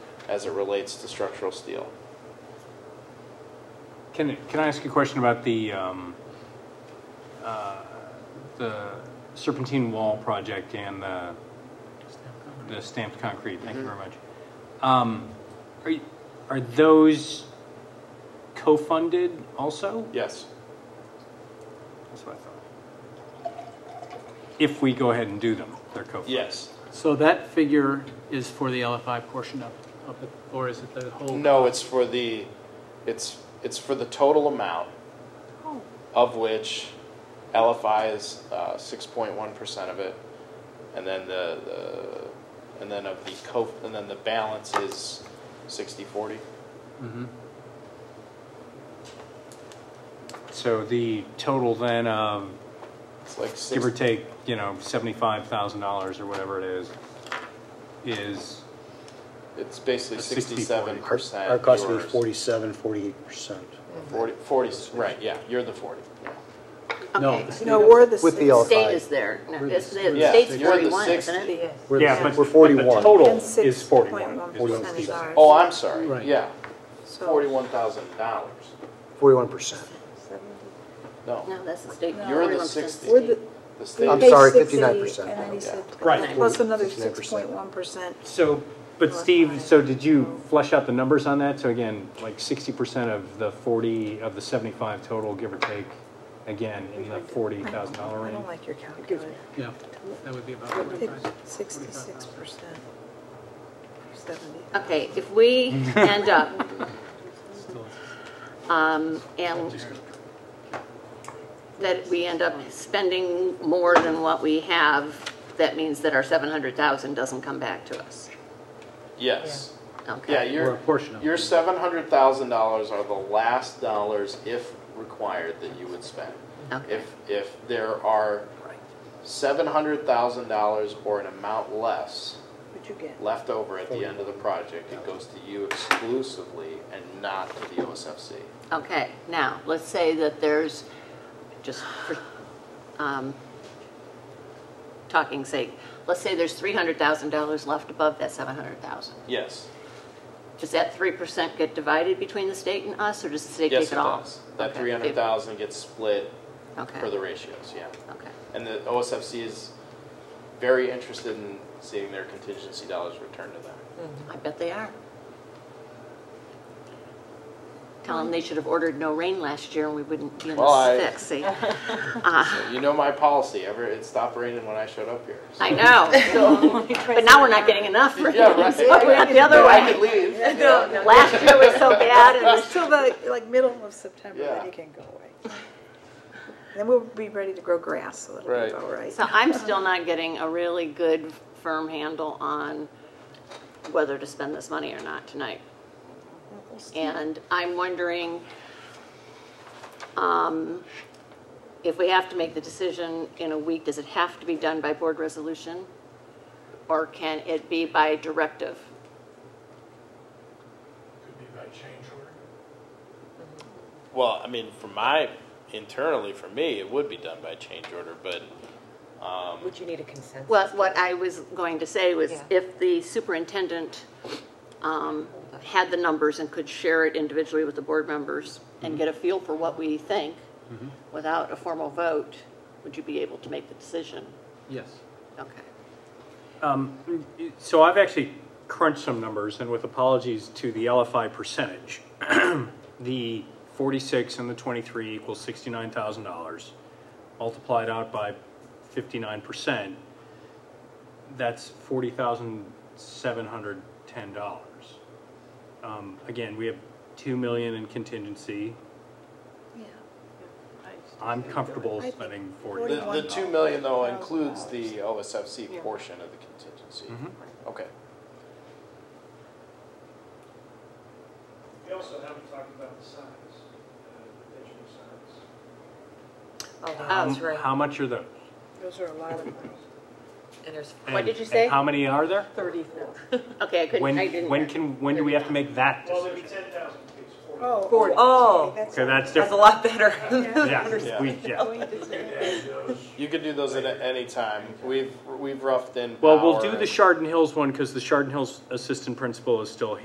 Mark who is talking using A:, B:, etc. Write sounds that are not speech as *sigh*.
A: as it relates to structural steel.
B: Can, can I ask you a question about the, um, uh, the serpentine wall project and the, the stamped concrete? Thank you very much. Um, are, you- are those co-funded also?
A: Yes.
B: That's what I thought. If we go ahead and do them, they're co-funded.
A: Yes.
C: So that figure is for the LFI portion of, of it, or is it the whole?
A: No, it's for the, it's, it's for the total amount of which LFI is uh, six point one percent of it, and then the, the, and then of the co, and then the balance is sixty forty.
B: So the total then of,
A: It's like six.
B: give or take, you know, seventy-five thousand dollars or whatever it is, is,
A: It's basically
B: It's 60,
A: sixty-seven
B: 40.
A: percent.
D: Our cost was 47, 48%.
A: Forty, forty, right, yeah, you're the forty.
D: No,
E: Okay.
D: it's-
F: No, we're the
D: With the
F: six
D: LFI.
E: State is there. No, it's- The
A: Yeah,
E: state's
A: you're the
E: 41, isn't it?
F: Yes.
D: We're,
B: Yeah, but-
D: we're
B: but
D: 41.
B: the total
F: And
B: is
F: six point
B: forty-one.
F: one
B: is what
F: percent
B: Steve
F: is
B: said.
F: ours.
A: Oh, I'm sorry,
D: Right.
A: yeah,
F: So-
A: forty-one thousand dollars,
D: 41%.
A: no,
E: No, that's the state.
A: You're the
E: 41%.
A: 60.
F: We're the.
A: the
D: I'm
A: state,
F: base
D: sorry,
F: 60,
D: 59%.
F: And then he said.
B: Right.
F: Plus another
D: 59%.
F: six point one percent.
B: So, but Steve, so did you flesh out the numbers on that? So again, like sixty percent of the forty, of the seventy-five total, give or take, again, in the forty thousand dollar
F: I
B: range?
F: don't like your calculator.
C: Yeah, that would be about forty-five.
F: Sixty-six percent. Seventy.
E: Okay, if we
A: *laughs*
E: end up, um, and that we end up spending more than what we have, that means that our 700,000 doesn't come back to us.
A: yes.
E: Okay.
A: Yeah,
C: Or a
A: your,
C: portion of it.
A: your seven hundred thousand dollars are the last dollars, if required, that you would spend.
E: Okay.
A: If, if there are seven hundred thousand dollars or an amount less
F: What'd you *laughs* get?
A: left over at the end of the project, it goes to you exclusively and not to the OSFC.
E: Okay, now, let's say that there's, just for, um, talking sake, let's say there's three hundred thousand dollars left above that seven hundred thousand.
A: Yes,
E: Does that three percent get divided between the state and us, or does the state take
A: yes,
E: it
A: it
E: all?
A: does. That
E: Okay.
A: three hundred thousand gets split
E: Okay,
A: for the ratios, yeah.
E: okay,
A: And the OSFC is very interested in seeing their contingency dollars returned to them.
E: I bet they are. Tell them they should have ordered no rain last year and we wouldn't be in
A: Well, I-
E: this fix, see?
A: You know my policy, ever, it stopped raining when I showed up here. so-
E: I know, so- but now we're not getting enough rain.
A: Yeah, right.
E: so we went the other
A: No,
E: way.
A: I could leave.
E: Last year was so bad, and
F: *laughs*
E: this-
F: Till the, like, middle of September,
A: Yeah.
F: then you can go away. *laughs* Then we'll be ready to grow grass, so that'll
A: Right.
F: be all right.
E: so I'm still not getting a really good firm handle on whether to spend this money or not tonight. And I'm wondering um, if we have to make the decision in a week, does it have to be done by board resolution? Or can it be by directive?
G: Could be by change order.
A: Well, I mean, for my, internally, for me, it would be done by change order, but
H: Would you need a consensus?
E: Well, what I was going to say was
H: Yeah.
E: if the superintendent um, had the numbers and could share it individually with the board members
H: Mm-hmm.
E: and get a feel for what we think without a formal vote, would you be able to make the decision?
C: Yes.
E: Okay.
B: Um, So I've actually crunched some numbers, and with apologies to the LFI percentage, *clears throat* the 46 and the 23 equals $69,000, multiplied out by 59%, that's $40,710. Um, Again, we have 2 million in contingency.
F: Yeah.
B: I'm comfortable
F: I think
B: spending
A: the,
B: 40.
A: the
F: Forty-one
A: two million though includes the OSFC portion of the contingency. Okay,
G: We also haven't talked about the signs, uh, the digital signs.
H: Oh, that's
B: Um,
H: right.
B: How much are those?
F: Those are a lot of money.
H: And there's,
E: What did
B: And-
E: you say?
B: and how many are there?
F: Thirty-four.
E: Okay, I couldn't,
B: When,
E: I didn't.
B: when
E: hear.
B: can, when do we have to make that
G: Well, there'd be
B: decision?
G: ten thousand kids, forty.
F: Oh.
H: Forty.
F: oh, okay,
B: Okay, that's
H: that's a
B: different.
H: lot better. *laughs*
B: Yeah, we, yeah.
G: And those,
A: you could do those at a- any time. We've, we've roughed in
B: Well, we'll do
A: power
B: the
A: and-
B: Chardon Hills one because the Chardon Hills assistant principal is still here.